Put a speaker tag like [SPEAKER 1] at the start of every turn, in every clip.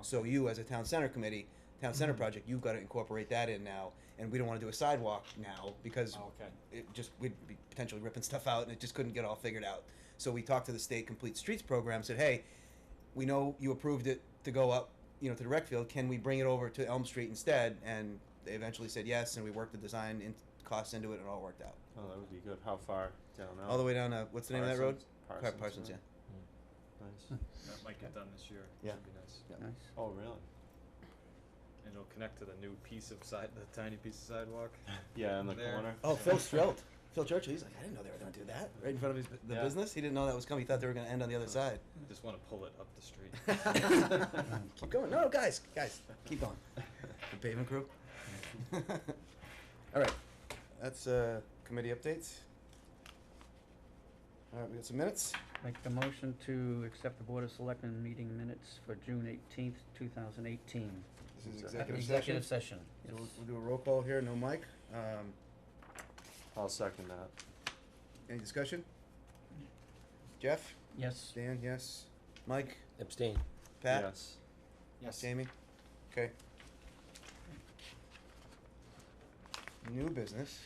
[SPEAKER 1] So you, as a town center committee, town center project, you've gotta incorporate that in now, and we don't wanna do a sidewalk now, because
[SPEAKER 2] Oh.
[SPEAKER 3] Oh, Okay.
[SPEAKER 1] it just, we'd be potentially ripping stuff out, and it just couldn't get all figured out. So we talked to the state complete streets program, said, hey, we know you approved it to go up, you know, to the rec field, can we bring it over to Elm Street instead? And they eventually said yes, and we worked the design and costs into it, and it all worked out.
[SPEAKER 3] Oh, that would be good. How far down?
[SPEAKER 1] All the way down, uh, what's the name of that road?
[SPEAKER 3] Oh. Parsons.
[SPEAKER 1] Car- Parsons, yeah.
[SPEAKER 3] Nice.
[SPEAKER 2] That might get done this year.
[SPEAKER 1] Yeah.
[SPEAKER 2] Should be nice.
[SPEAKER 4] Nice.
[SPEAKER 3] Oh, really?
[SPEAKER 2] And it'll connect to the new piece of side, the tiny piece of sidewalk.
[SPEAKER 3] Yeah, in the
[SPEAKER 2] There.
[SPEAKER 3] corner.
[SPEAKER 1] Oh, Phil's thrilled. Phil Churchill, he's like, I didn't know they were going to do that right in front of his, the
[SPEAKER 3] Yeah.
[SPEAKER 1] business. He didn't know that was coming. He thought they were going to end on the other side.
[SPEAKER 2] Just want to pull it up the street.
[SPEAKER 1] keep going. No, guys, guys, keep going. The pavement crew. All right, that's uh, committee updates. All right, we got some minutes.
[SPEAKER 4] Make the motion to accept the Board of Selectmen meeting minutes for June eighteenth, two thousand eighteen.
[SPEAKER 1] This is
[SPEAKER 3] Is that-
[SPEAKER 1] executive session.
[SPEAKER 4] Executive session,
[SPEAKER 1] So
[SPEAKER 4] yes.
[SPEAKER 1] we'll, we'll do a roll call here. No mic. Um,
[SPEAKER 3] I'll second that.
[SPEAKER 1] any discussion? Jeff,
[SPEAKER 4] Yes,
[SPEAKER 1] Dan, yes. Mike,
[SPEAKER 5] Abstain.
[SPEAKER 1] Pat,
[SPEAKER 3] Yes.
[SPEAKER 1] Jamie? Okay. New business.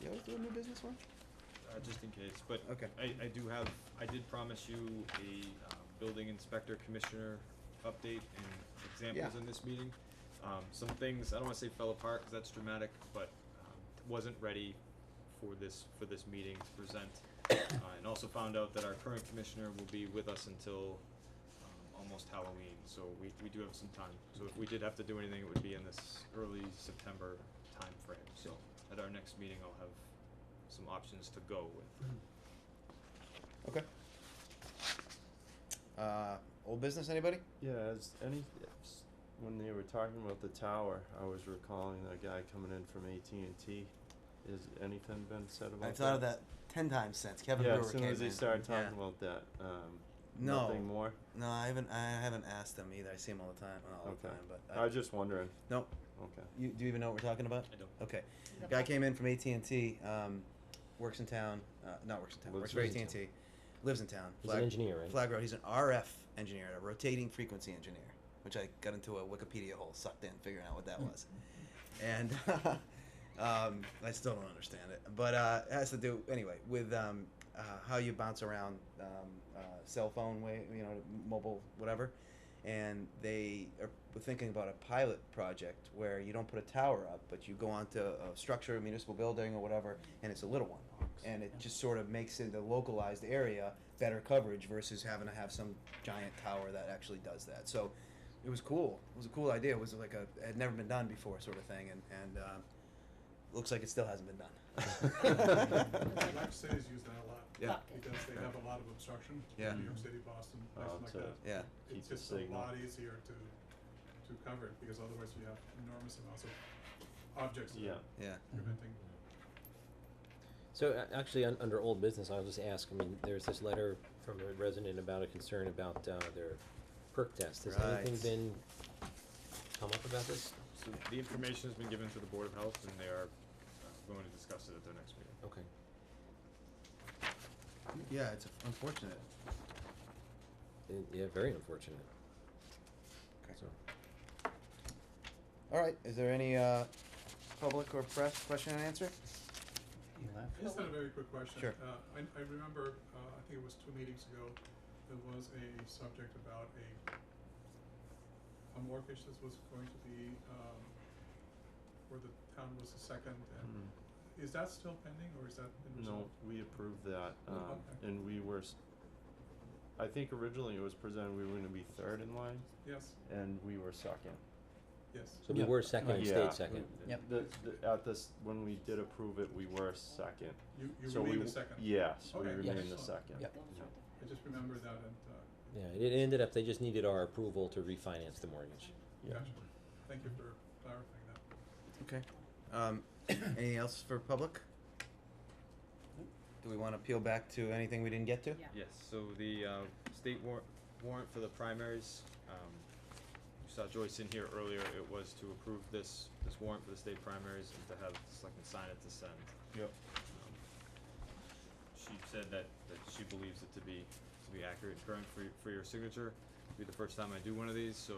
[SPEAKER 1] You always do a new business one?
[SPEAKER 2] uh, just in case, but
[SPEAKER 1] Okay.
[SPEAKER 2] I, I do have, I did promise you a, um, building inspector commissioner update and examples
[SPEAKER 1] Yeah.
[SPEAKER 2] in this meeting. Um, some things, I don't wanna say fell apart, cause that's dramatic, but, um, wasn't ready for this, for this meeting to present. Uh, and also found out that our current commissioner will be with us until, um, almost Halloween, so we, we do have some time. So if we did have to do anything, it would be in this early September timeframe, so at our next meeting, I'll have some options to go with.
[SPEAKER 1] Okay. Uh, old business, anybody?
[SPEAKER 3] Yeah, as any, s- when they were talking about the tower, I was recalling that guy coming in from AT&T. Has anything been said about that?
[SPEAKER 1] I've thought of that ten times since Kevin
[SPEAKER 3] Yeah,
[SPEAKER 1] Brewer
[SPEAKER 3] as soon
[SPEAKER 1] came
[SPEAKER 3] as he
[SPEAKER 1] in.
[SPEAKER 3] started
[SPEAKER 1] Yeah.
[SPEAKER 3] talking about that, um,
[SPEAKER 1] No.
[SPEAKER 3] nothing more?
[SPEAKER 1] No, I haven't, I haven't asked him either. I see him all the time, not all the
[SPEAKER 3] Okay.
[SPEAKER 1] time, but.
[SPEAKER 3] I was just wondering.
[SPEAKER 1] No,
[SPEAKER 3] Okay.
[SPEAKER 1] you, do you even know what we're talking about?
[SPEAKER 2] I don't.
[SPEAKER 1] Okay. Guy came in from AT and T. Um, works in town. Uh, not works in town. works
[SPEAKER 3] Lives
[SPEAKER 1] for AT
[SPEAKER 3] in
[SPEAKER 1] and T. Lives in town.
[SPEAKER 5] He's an engineer, right?
[SPEAKER 1] Flag Road. He's an RF engineer, a rotating frequency engineer, which I got into a Wikipedia hole, sucked in, figuring out what that was, and um, I still don't understand it. But uh, it has to do anyway with um, uh, how you bounce around um, uh, cell phone way, you know, mobile whatever. And they are were thinking about a pilot project where you don't put a tower up, but you go onto a structure, a municipal building, or whatever, and it's a little one and it just sort of makes it a localized area better coverage versus having to have some giant tower that actually does that. So it was cool. It was a cool idea. It was like a it had never been done before sort of thing, and and um, looks like it still hasn't been done.
[SPEAKER 6] Black cities use that a lot.
[SPEAKER 1] Yeah.
[SPEAKER 6] Because they have a lot of obstruction,
[SPEAKER 1] Yeah.
[SPEAKER 6] New York City, Boston, places
[SPEAKER 3] Oh,
[SPEAKER 6] like
[SPEAKER 3] to
[SPEAKER 6] that.
[SPEAKER 1] yeah.
[SPEAKER 3] keep
[SPEAKER 6] It's
[SPEAKER 3] the
[SPEAKER 6] just a
[SPEAKER 3] signal.
[SPEAKER 6] lot easier to, to cover it, because otherwise you have enormous amounts of objects that
[SPEAKER 3] Yeah.
[SPEAKER 6] are
[SPEAKER 1] Yeah.
[SPEAKER 6] preventing.
[SPEAKER 5] So a- actually, un- under old business, I'll just ask, I mean, there's this letter from a resident about a concern about, uh, their perk test. Has anything
[SPEAKER 1] Right.
[SPEAKER 5] been come up about this?
[SPEAKER 2] So the information has been given to the Board of Health and they are uh, going to discuss it at their next meeting.
[SPEAKER 5] Okay.
[SPEAKER 1] Yeah. It's unfortunate.
[SPEAKER 5] Uh, Yeah, very unfortunate,
[SPEAKER 1] Okay.
[SPEAKER 5] so.
[SPEAKER 1] All right. Is there any uh, public or press question and answer?
[SPEAKER 4] you left.
[SPEAKER 6] I just had a very quick question.
[SPEAKER 1] Sure.
[SPEAKER 6] Uh, I, I remember, uh, I think it was two meetings ago, there was a subject about a, a mortgage that was going to be, um, where the town was the second, and
[SPEAKER 3] Mm.
[SPEAKER 6] is that still pending, or is that been
[SPEAKER 3] No,
[SPEAKER 6] resolved?
[SPEAKER 3] we approved that,
[SPEAKER 6] Oh,
[SPEAKER 3] um,
[SPEAKER 6] okay.
[SPEAKER 3] and we were, s- I think originally it was presented, we were gonna be third in line,
[SPEAKER 6] Yes,
[SPEAKER 3] and we were second.
[SPEAKER 6] yes.
[SPEAKER 5] So we
[SPEAKER 4] Yeah.
[SPEAKER 5] were second and
[SPEAKER 3] Yeah.
[SPEAKER 5] stayed second.
[SPEAKER 4] Yep.
[SPEAKER 3] The, the, at this, when we did approve it, we were second.
[SPEAKER 6] You, you
[SPEAKER 3] So we
[SPEAKER 6] remain the
[SPEAKER 3] w-
[SPEAKER 6] second.
[SPEAKER 3] Yes, we
[SPEAKER 6] Okay.
[SPEAKER 3] remained the
[SPEAKER 6] Yes.
[SPEAKER 3] second.
[SPEAKER 4] Yep.
[SPEAKER 3] Yeah.
[SPEAKER 6] I just remember that and, uh,
[SPEAKER 5] Yeah, it it ended up, they just needed our approval to refinance the mortgage.
[SPEAKER 3] Yeah.
[SPEAKER 6] gotcha. Thank you for clarifying that.
[SPEAKER 1] Okay. Um, anything else for public? Do we want to peel back to anything we didn't get to?
[SPEAKER 2] Yes, so the uh, state warrant, warrant for the primaries, um, you saw Joyce in here earlier, it was to approve this, this warrant for the state primaries and to have the selectmen sign it to send.
[SPEAKER 3] Yep.
[SPEAKER 2] Um, She said that, that she believes it to be, to be accurate and current for, y- for your signature. be the first time I do one of these, so